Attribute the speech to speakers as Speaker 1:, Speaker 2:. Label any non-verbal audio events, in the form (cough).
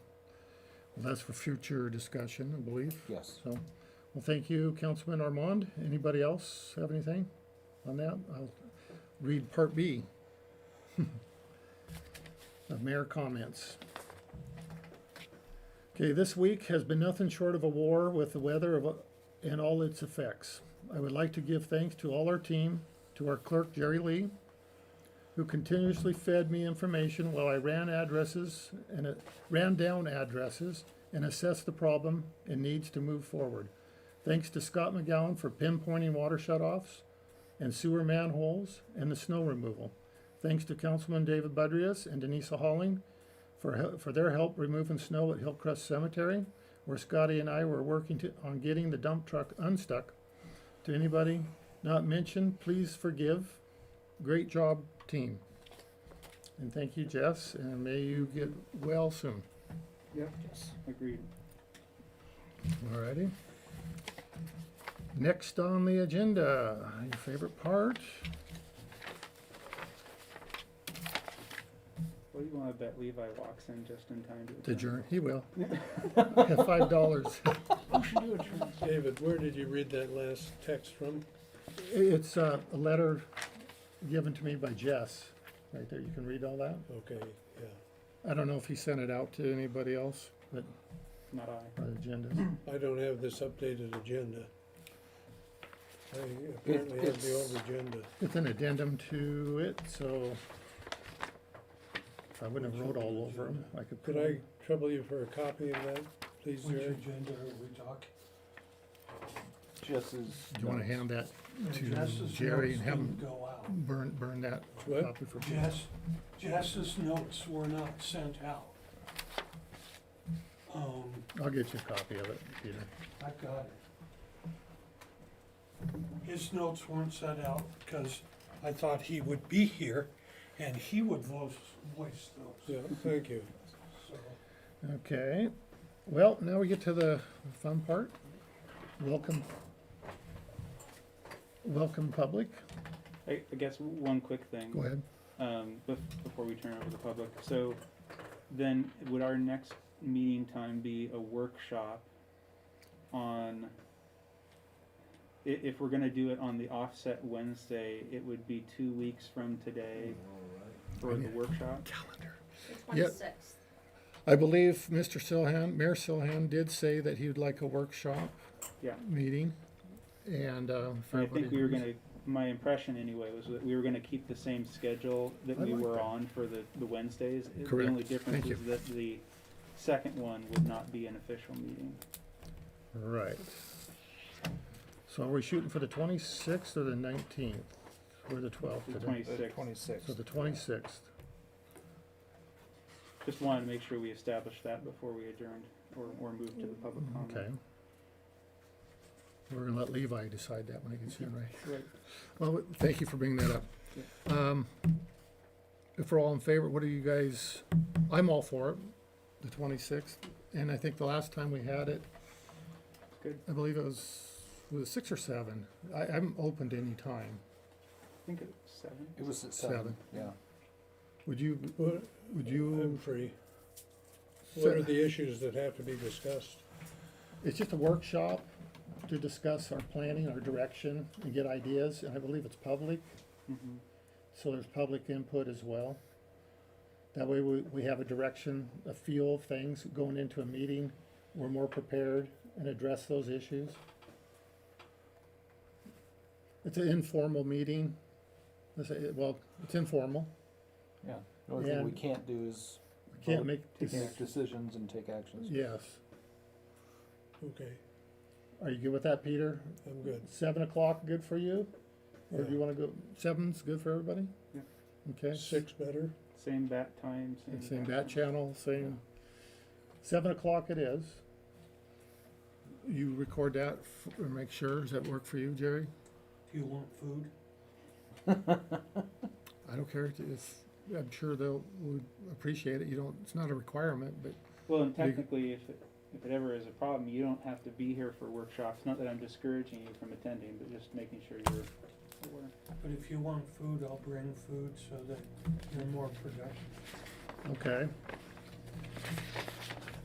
Speaker 1: That's for future discussion, I believe.
Speaker 2: Yes.
Speaker 1: So, well, thank you, Councilman Armand. Anybody else have anything on that? I'll read Part B (laughs) of mayor comments. Okay, this week has been nothing short of a war with the weather of, and all its effects. I would like to give thanks to all our team, to our clerk Jerry Lee, who continuously fed me information while I ran addresses and uh, ran down addresses and assessed the problem and needs to move forward. Thanks to Scott McGowan for pinpointing water shutoffs and sewer manholes and the snow removal. Thanks to Councilman David Budrias and Denisa Halling for, he- for their help removing snow at Hillcrest Cemetery, where Scotty and I were working to, on getting the dump truck unstuck. To anybody not mentioned, please forgive. Great job, team. And thank you, Jess, and may you get well soon.
Speaker 3: Yep, agreed.
Speaker 1: Alrighty. Next on the agenda, your favorite part?
Speaker 3: What do you wanna bet Levi walks in just in time to?
Speaker 1: The
Speaker 3: attend?
Speaker 1: journey, he will. Five dollars.
Speaker 4: David, where did you read that last text from?
Speaker 1: It's uh, a letter given to me by Jess, right there, you can read all that.
Speaker 4: Okay, yeah.
Speaker 1: I don't know if he sent it out to anybody else, but
Speaker 3: Not I.
Speaker 1: our agenda.
Speaker 4: I don't have this updated agenda. I apparently have the old
Speaker 2: it's-
Speaker 4: agenda.
Speaker 1: It's an addendum to it, so if I wouldn't have wrote all over them, I could put
Speaker 4: Could
Speaker 1: it.
Speaker 4: I trouble you for a copy of that, please,
Speaker 5: Which
Speaker 4: Jerry?
Speaker 5: agenda are we talking?
Speaker 2: Just as.
Speaker 1: Do you wanna hand that To
Speaker 5: Jess's
Speaker 1: Jerry
Speaker 5: notes
Speaker 1: and have him-
Speaker 5: didn't Go out.
Speaker 1: Burn, burn that
Speaker 4: What?
Speaker 1: copy for people.
Speaker 5: Jess, Jess's notes were not sent out. Um,
Speaker 1: I'll get you a copy of it, Peter.
Speaker 5: I've got it. His notes weren't sent out because I thought he would be here and he would voice, voice those,
Speaker 4: Yeah, thank you.
Speaker 5: so.
Speaker 1: Okay, well, now we get to the fun part. Welcome. Welcome, public.
Speaker 3: I, I guess one quick thing.
Speaker 1: Go ahead.
Speaker 3: um, bef- before we turn it over to the public. So then would our next meeting time be a workshop on, i- if we're gonna do it on the offset Wednesday, it would be two weeks from today for the workshop?
Speaker 1: Calendar.
Speaker 6: The
Speaker 1: Yep.
Speaker 6: twenty-sixth.
Speaker 1: I believe Mr. Silhan, Mayor Silhan did say that he would like a workshop.
Speaker 3: Yeah.
Speaker 1: Meeting, and, uh. if
Speaker 3: And I think
Speaker 1: everybody
Speaker 3: we were
Speaker 1: agrees.
Speaker 3: gonna, my impression anyway, was that we were gonna keep the same schedule that
Speaker 1: I
Speaker 3: we
Speaker 1: like
Speaker 3: were
Speaker 1: that.
Speaker 3: on for the, the Wednesdays. The
Speaker 1: Correct.
Speaker 3: only
Speaker 1: Thank
Speaker 3: difference
Speaker 1: you.
Speaker 3: is that the second one would not be an official meeting.
Speaker 1: Right. So are we shooting for the twenty-sixth or the nineteenth? Or the twelfth
Speaker 3: The
Speaker 1: today?
Speaker 3: twenty-sixth.
Speaker 2: Twenty-six.
Speaker 1: So the twenty-sixth.
Speaker 3: Just wanted to make sure we established that before we adjourned or, or moved to the public
Speaker 1: Mm, Okay.
Speaker 3: comment.
Speaker 1: We're gonna let Levi decide that when he gets in, right?
Speaker 3: Right.
Speaker 1: Well, thank you for bringing that up. Um, if we're all in favor, what are you guys, I'm all for it, the twenty-sixth, and I think the last time we had it,
Speaker 3: Good.
Speaker 1: I believe it was, was it six or seven? I, I'm open to any time.
Speaker 3: I think it's seven.
Speaker 2: It was at
Speaker 1: Seven.
Speaker 2: seven, yeah.
Speaker 1: Would you,
Speaker 4: What,
Speaker 1: would
Speaker 4: I'm
Speaker 1: you,
Speaker 4: free.
Speaker 1: So-
Speaker 4: What are the issues that have to be discussed?
Speaker 1: it's just a workshop to discuss our planning, our direction, and get ideas, and I believe it's public.
Speaker 3: Mhm.
Speaker 1: So there's public input as well. That way we, we have a direction, a feel of things going into a meeting. We're more prepared and address those issues. It's an informal meeting. Let's say, it- well, it's informal.
Speaker 2: Yeah. The only thing we
Speaker 1: And-
Speaker 2: can't do is
Speaker 1: We can't make,
Speaker 2: take
Speaker 1: dec-
Speaker 2: make decisions and take actions.
Speaker 1: yes.
Speaker 4: Okay,
Speaker 1: Are you good with that, Peter?
Speaker 4: I'm good.
Speaker 1: Seven o'clock, good for you? Or do you
Speaker 4: Yeah.
Speaker 1: wanna go, seven's good for everybody?
Speaker 3: Yeah.
Speaker 1: Okay.
Speaker 4: Six better?
Speaker 3: Same bat time, same.
Speaker 1: Same bat channel, same, seven o'clock it is. You record that f- or make sure, does that work for you, Jerry?
Speaker 5: Do you want food?
Speaker 1: I don't care, it's, I'm sure they'll, would appreciate it, you don't, it's not a requirement, but
Speaker 3: Well, and technically, if it, if it ever is a problem, you don't have to be here for workshops. Not that I'm discouraging you from attending, but just making sure you're aware.
Speaker 5: But if you want food, I'll bring food so that you're more productive.
Speaker 1: Okay.